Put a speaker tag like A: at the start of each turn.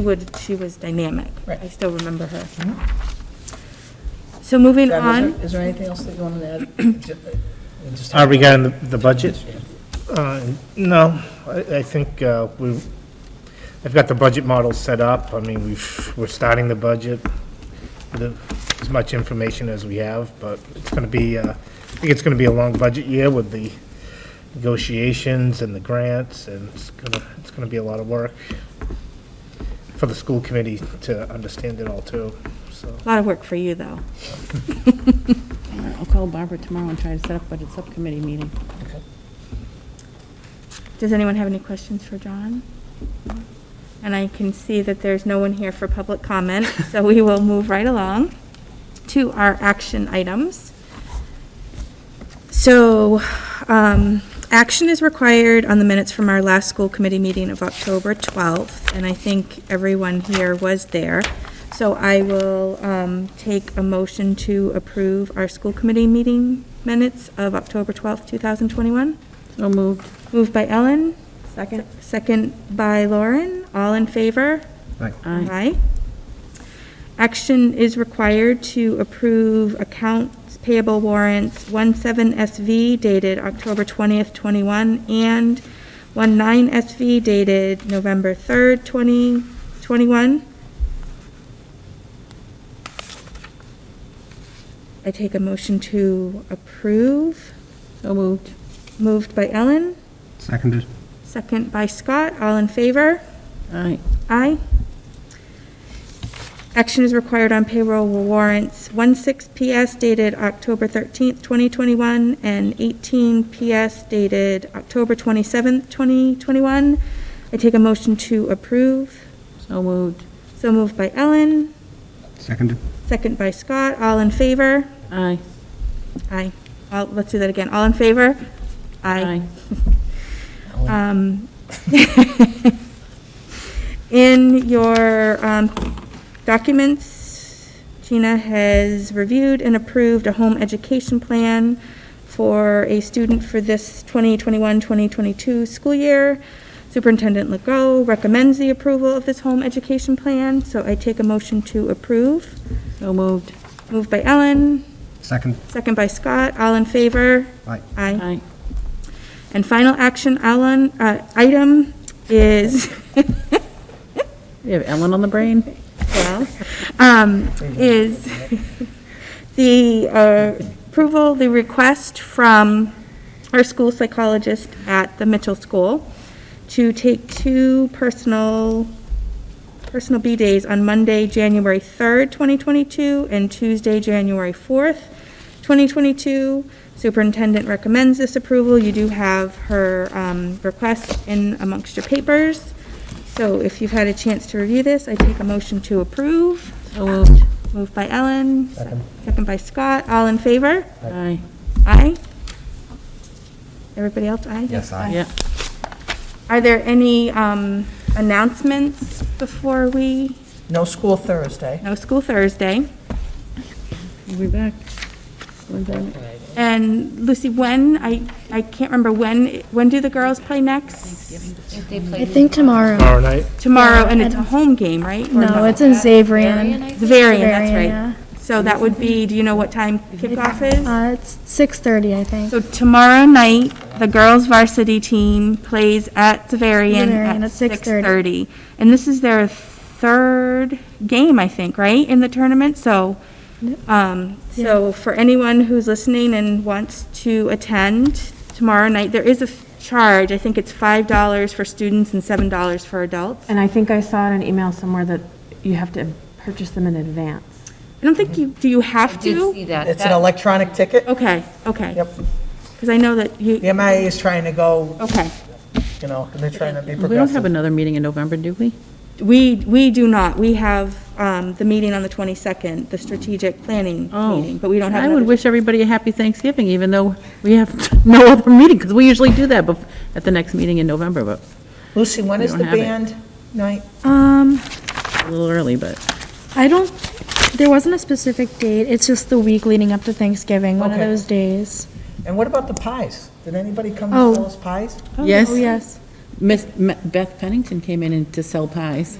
A: would, she was dynamic.
B: Right.
A: I still remember her. So moving
B: Deb, is there-
A: on,
B: Is there anything else that you wanted to add? Just-
C: Uh, Regarding the the budget? Uh, No, I I think uh, we, I've got the budget model set up. I mean, we've, we're starting the budget with as much information as we have, but it's going to be, uh, I think it's going to be a long budget year with the negotiations and the grants, and it's going to, it's going to be a lot of work for the school committee to understand it all, too, so.
A: a lot of work for you, though.
D: All right, I'll call Barbara tomorrow and try to set up a subcommittee meeting.
A: Does anyone have any questions for John? And I can see that there's no one here for public comment, so we will move right along to our action items. So, um, action is required on the minutes from our last school committee meeting of October 12th, and I think everyone here was there. So I will, um, take a motion to approve our school committee meeting minutes of October 12th, 2021.
D: So moved.
A: Moved by Ellen. Second. Second by Lauren. All in favor?
D: Aye.
A: Action is required to approve accounts payable warrants 17SV dated October 20th, 21, and 19SV dated November 3rd, 2021. I take a motion to approve.
D: So moved.
A: Moved by Ellen.
C: Seconded.
A: Second by Scott, all in favor?
D: Aye.
A: Aye. Action is required on payroll warrants 16 PS dated October 13th, 2021, and 18 PS dated October 27th, 2021. I take a motion to approve.
D: So moved.
A: So moved by Ellen,
C: Seconded.
A: second by Scott, all in favor?
D: Aye.
A: Aye. All- Let's do that again, all in favor? Aye. Um, In your um, documents, Gina has reviewed and approved a home education plan for a student for this 2021-2022 school year. Superintendent Legault recommends the approval of this home education plan, so I take a motion to approve.
D: So moved.
A: Moved by Ellen,
C: Second.
A: second by Scott. All in favor?
C: Aye.
A: Aye.
D: Aye.
A: And final action Alan, uh, item is,
D: You have Ellen on the brain?
A: well, um, is the uh, approval, the request from our school psychologist at the Mitchell School to take two personal, personal B days on Monday, January 3rd, 2022, and Tuesday, January 4th, 2022. Superintendent recommends this approval. You do have her um, request in amongst your papers. So if you've had a chance to review this, I take a motion to approve.
D: So moved.
A: Moved by Ellen.
B: Second.
A: Second by Scott. All in favor?
D: Aye.
A: Aye. Everybody else, aye? Yes, aye.
D: Yeah.
A: Are there any um, announcements before we,
B: No school Thursday.
A: no school Thursday?
D: We'll be back. When's that?
A: And Lucy, when, I, I can't remember, when, when do the girls play next?
E: I think tomorrow.
C: Tomorrow night?
A: Tomorrow, and it's a home game, right? Or
E: No, it's in Xavrian.
A: It's Varian, that's
E: Varian,
A: right. So that would be, do you know what time kickoff is?
E: Uh, it's 6:30, I think.
A: So tomorrow night, the girls varsity team plays at Zavarian
E: Zavarian
A: at
E: at
A: six
E: 6:30.
A: thirty. And this is their third game, I think, right, in the tournament, so, um, so for anyone who's listening and wants to attend tomorrow night, there is a f- charge, I think it's five dollars for students and seven dollars for adults. I
F: And I think I saw in an email somewhere that you have to purchase them in advance.
A: don't think you, do you have
G: Mm-hmm. did
A: to?
G: see that.
B: It's an
G: That-
B: electronic ticket.
A: Okay, okay.
B: Yep.
A: Because I know that you,
B: The MIA is trying to go,
A: okay.
B: you know, and they're trying to be
D: We don't have
B: progressive.
D: another meeting in November, do we?
A: We, we do not. We have um, the meeting on the 22nd, the strategic planning meeting, but we don't have
D: Oh. I would
A: another.
D: wish everybody a happy Thanksgiving, even though we have no other meeting, because we usually do that bef- at the next meeting in November, but
B: Lucy, when
D: We
B: is
D: don't
B: the
D: have it.
B: band night?
E: Um,
D: a little early, but
E: I don't, there wasn't a specific date. It's just the week leading up to Thanksgiving, one of
B: Okay.
E: those days.
B: And what about the pies? Did anybody come
E: Oh.
B: and sell us pies?
D: yes.
E: Oh, yes.
D: Miss M- Beth Pennington came in and- to sell pies.